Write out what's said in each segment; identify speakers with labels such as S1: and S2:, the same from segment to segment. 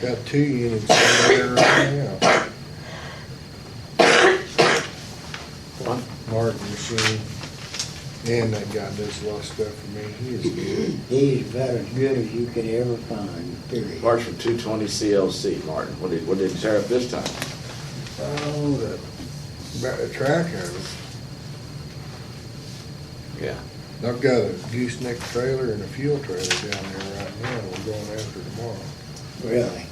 S1: Got two units over there right now. One Martin machine, and they got this lot stuff for me, he is good.
S2: He's about as good as you could ever find, period.
S3: Mark's from two twenty CLC, Martin. What did, what did it tear up this time?
S1: Oh, the, about the track of
S3: Yeah.
S1: it. I've got a gooseneck trailer and a fuel trailer down there right now, we're going after tomorrow.
S2: Really.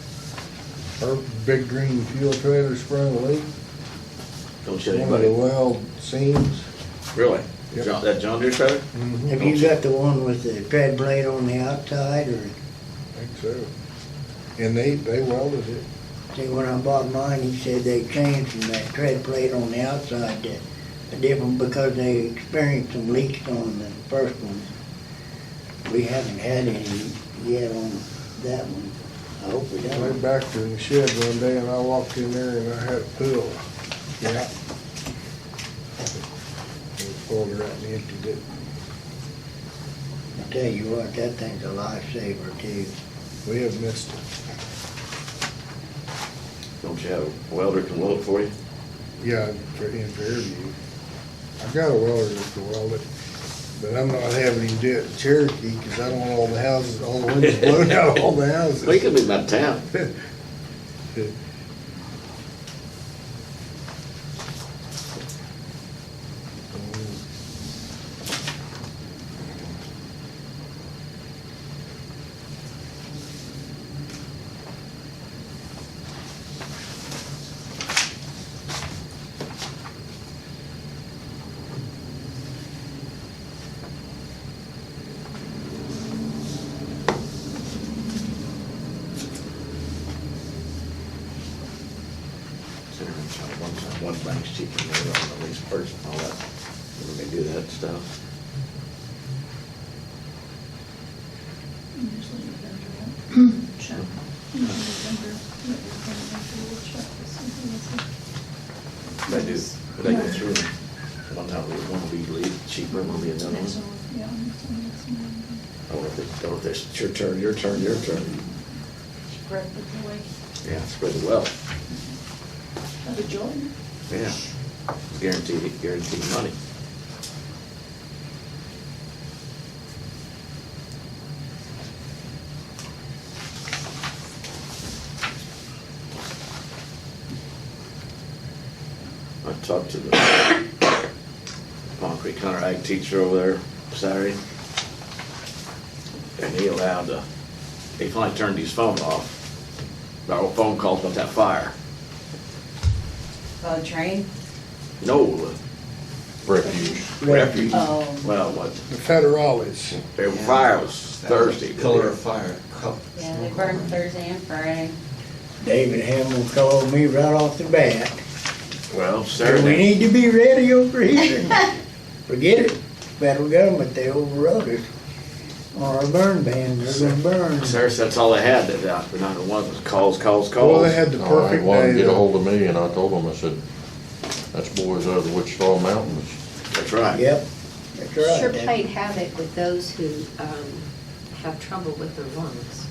S1: Her big green fuel trailer sprung a leak,
S3: Don't show
S1: one of the
S3: anybody.
S1: weld seams.
S3: Really?
S1: Yep.
S3: John- That John Deere trailer?
S2: Have you got the one with the tread blade on the outside, or,
S1: Think so. And they, they welded it.
S2: see, when I bought mine, he said they changed from that tread blade on the outside to a different, because they experienced some leaks on the first one. We haven't had any yet on that one. I hope we
S1: I went
S2: don't.
S1: back to the shed one day and I walked in there and I had a pool. Yeah. Pulled her out and emptied it.
S2: I tell you what, that thing's a lifesaver too.
S1: We have missed it.
S3: Don't you have a welder can weld it for you?
S1: Yeah, for, in Fairview. I've got a welder that can weld it, but I'm not having him do it in Cherokee because I don't want all the houses, all the windows blown out, of all the houses.
S3: Well, you could be out of town. Considering One one bank's cheaper than the other on the lease purchase and all that. When they do that stuff.
S4: Usually November, yeah. Check. Usually November, but we can eventually check with something
S3: They
S4: that's-
S3: do, but they go through. them. One time, we- one will be le- cheaper, one will be another
S4: Next
S3: one.
S4: one, yeah, next one, next one.
S3: Or if they, or if it's your turn, your turn, your turn.
S4: Spread it away.
S3: Yeah, spread the wealth.
S4: Have a joy.
S3: Yeah. Guaranteed, guaranteed money. I talked to the Palm Creek Hunter Ag teacher over there Saturday. And he allowed, uh, he finally turned his phone off. Our phone calls about that fire.
S5: Uh, train?
S3: No, uh,
S6: refuge.
S3: refuge.
S5: Oh.
S3: Well, what,
S1: The federales,
S3: their fire was Thursday.
S6: Color of fire. cup.
S5: Yeah, they burn Thursday and Friday.
S2: David Hamel called me right off the bat.
S3: Well,
S2: We
S3: Saturday,
S2: need to be ready over here. Forget it, federal government, they overrode it. Or a burn ban, they're gonna burn.
S3: Saturday, that's all they had that out, but not one was calls, calls, calls.
S1: well, they had the
S6: All right,
S1: perfect
S6: one
S1: day.
S6: get
S1: though.
S6: ahold of me and I told him, I said, that's boys out of the Wichita Mountains.
S3: That's right.
S2: Yep, that's right.
S7: Sure played havoc with those who um, have trouble with their lungs.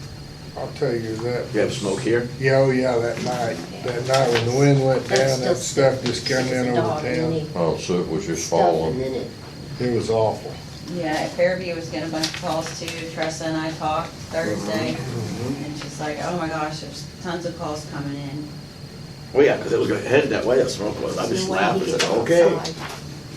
S1: I'll tell you that.
S3: You have smoke here?
S1: Yeah, oh yeah, that night, that night when the wind went down, that stuff just come in over town.
S6: Oh, so it was just
S7: Stuff and
S6: falling.
S7: then it
S1: It was awful.
S5: Yeah, at Fairview was getting a bunch of calls too. Tressa and I talked Thursday. And she's like, oh my gosh, there's tons of calls coming in.
S3: Well, Oh, yeah, 'cause it was going headed that way, that smoke was. I just
S7: Some way
S3: laughed
S7: he
S3: and said,
S7: gets
S3: okay.
S7: outside.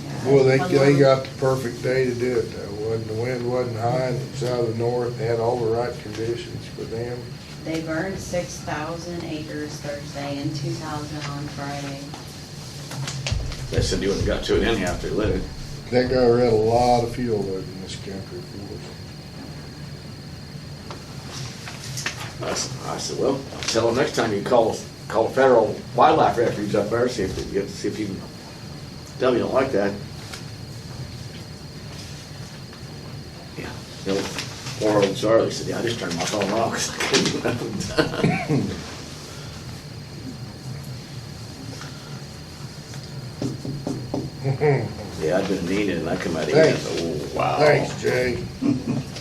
S5: Yeah.
S1: Well, they, they got the perfect day to do it though. Wasn't, the wind wasn't high and it was out of the north, they had all the right conditions for them.
S5: They burned six thousand acres Thursday and two thousand on Friday.
S3: They said you wouldn't have got to it anyhow after you lit it.
S1: That guy read a lot of fuel load in this country for us.
S3: I s- I said, well, tell them next time you call, call Federal Wildlife Refuge up there, see if they get, see if you can, tell them you don't like that. Yeah, you know, poor old Charlie said, yeah, I just turned my phone off 'cause I couldn't do nothing. Yeah, I've been meaning, and I come out here, and I
S1: Thanks.
S3: said, oh, wow.
S1: Thanks, Jay. Oh,